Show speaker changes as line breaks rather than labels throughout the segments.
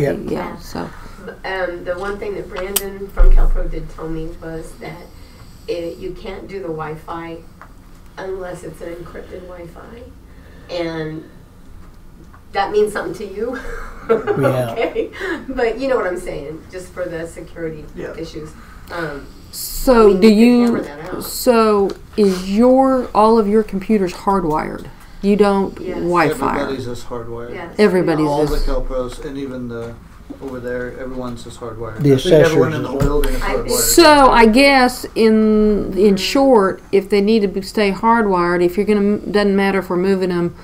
Yeah.
Yeah, so,
Um, the one thing that Brandon from CalPro did tell me was that it, you can't do the Wi-Fi unless it's an encrypted Wi-Fi, and that means something to you.
Yeah.
okay, but you know what I'm saying, just for the security
Yeah.
issues. Um,
so
We
do
need to hammer
you,
that out.
so is your, all of your computers hardwired? You don't
Yes.
Wi-Fi?
Everybody's is hardwired.
yes,
Everybody's
All the
is-
Calpros and even the over there, everyone's is hardwired.
The
I think everyone
assessors
in
as
the whole
well.
building is
I-
hardwired.
So I guess in, in short, if they need to be- stay hardwired, if you're gonna, doesn't matter if we're moving them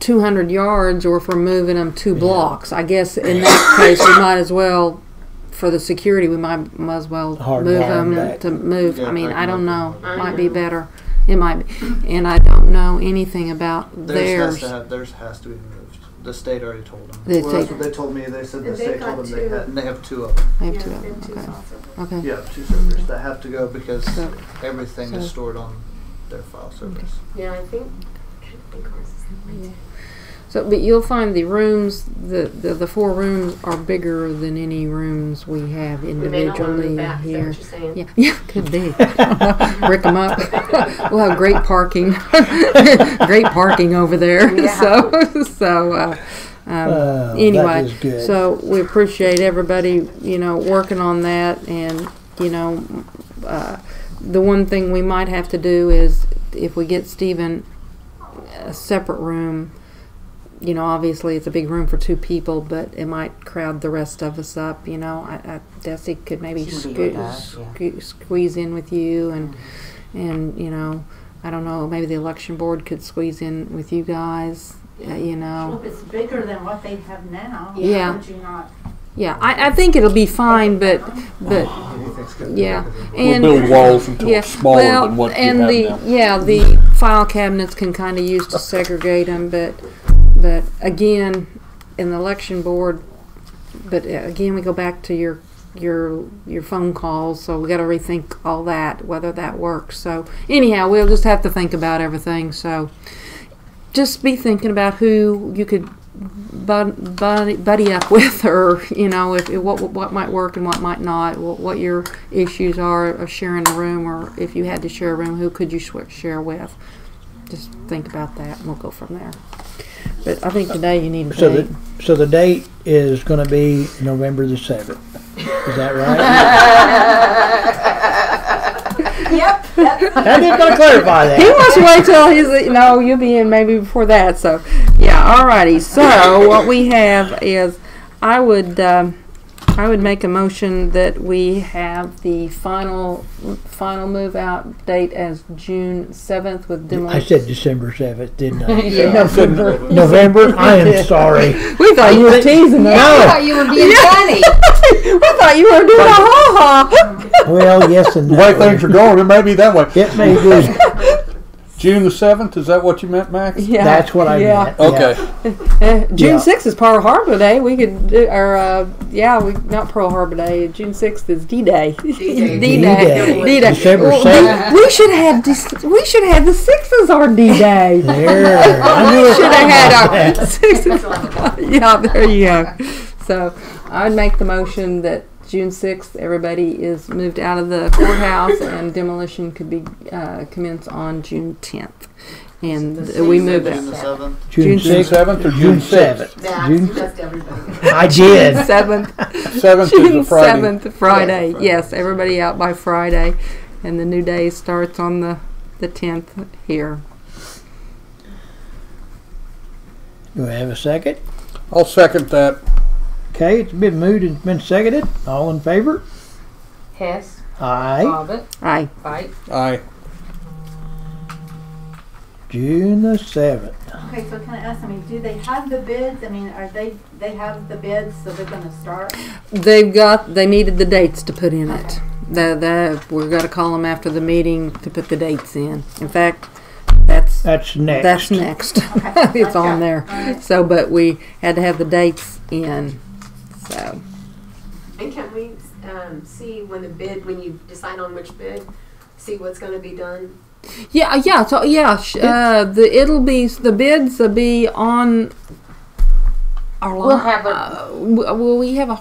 two hundred yards or if we're moving them two blocks, I guess in that case, we might as well, for the security, we might, might as well
Hardwire
move
'em
them
back.
to move.
Yeah,
I mean,
back
I don't
them
know,
up.
I
might be
know.
better, it might be, and I don't know anything about
theirs
theirs.
has to have, theirs has to be removed. The state already told them.
They
well, that's
take-
what they told me. They said the
And they
state
got
told them they
two.
had, and they have two of them.
They have
yes,
to have
they
them,
have two
okay,
software.
okay.
Yeah, two servers that have to go because
So-
everything
so-
is stored on their file servers.
Yeah, I think. I kinda think ours is that way, too.
So, but you'll find the rooms, the, the, the four rooms are bigger than any rooms we have
We may not want
individually
to move back. Is that
here.
what you're saying?
Yeah, yeah, could be. Brick them up. we'll have great parking, great parking over there.
Yeah.
So, so uh, um,
Oh, that
anyway,
is good.
so we appreciate everybody, you know, working on that, and you know, uh, the one thing we might have to do is if we get Stephen a separate room. You know, obviously it's a big room for two people, but it might crowd the rest of us up. You know, I, I Desi could maybe
She would be
squeeze,
with us, yeah. Mm-hmm.
sque- squeeze in with you, and and you know, I don't know, maybe the election board could squeeze in with you guys. Uh, you know,
Well, if it's bigger than what they have now,
Yeah.
why would you not? Uh-huh.
Yeah, I, I think it'll be fine, but but
Anything's gonna be
yeah,
bigger than-
and
we'll build walls until
yeah,
it's smaller
well,
than what you
and
have
the
now.
yeah the file cabinets can kind of use to segregate them, but but again, in the election board, but uh, again we go back to your your your phone calls, so we got to rethink all that whether that works. So anyhow, we'll just have to think about everything. So just be thinking about who you could bud, buddy, buddy up with, or you know, if, if what what might work and what might not, what, what your issues are of sharing a room, or if you had to share a room, who could you swi- share with? Just think about that, and we'll go from there. But I think today you need a
So
date.
the, so the date is gonna be November the seventh. Is that right?
Yep.
I did not clarify
He
that.
wants to wait till he's no, you'll be in maybe before that. So yeah, alrighty. So what we have is, I would um, I would make a motion that we have the final final move out date as June seventh with
I
demolition.
said December seventh, didn't I?
Yeah.
November. November, I am sorry.
We thought you were teasing us.
No,
you were being funny.
we thought you were doing a ha ha.
well, yes and
The
no.
way things are going, it may be that way.
It may be,
June the seventh, is that what you meant, Max?
Yeah,
that's what I
yeah.
meant.
Okay.
Uh, June
Yeah.
sixth is Pearl Harbor Day. We could do, or uh, yeah, we not Pearl Harbor Day. June sixth is D Day.
D-Day.
D-Day.
D-Day.
D-Day.
December
Well,
seventh.
we- we should have dis- we should have the sixth as our D-Day.
Yeah. There, I knew
we
it.
should have had
Yeah.
our sixth. yeah, there you go. So I'd make the motion that June sixth, everybody is moved out of the courthouse and demolition could be uh, commenced on June tenth, and we move
June the
it.
seventh.
June
June
sixth,
seventh or
June
June sixth?
seventh.
Max,
June-
you messed everybody. up.
I did.
Seventh.
Seventh is
June
a Friday.
seventh, Friday.
Yeah, Friday.
Yes, everybody out by Friday, and the new day starts on the the tenth here.
Do we have a second?
I'll second that.
Okay, it's been moved and it's been seconded. All in favor?
Hess,
Aye.
Bobbit,
Aye.
Bite.
Aye.
June the seventh.
Okay, so can I ask, I mean, do they have the bids? I mean, are they, they have the bids, so they're gonna start?
They've got. They needed the dates to put in it. The the we're gonna call them after the meeting to put the dates in. In fact, that's
That's next.
that's next. it's on there. So, but we had to have the dates in. So
And can we um, see when the bid, when you decide on which bid, see what's going to be done?
yeah, yeah, uh, so yeah. sh- Uh, the it'll be the bids will be on our
We'll
li-
have a-
uh, w- will we have a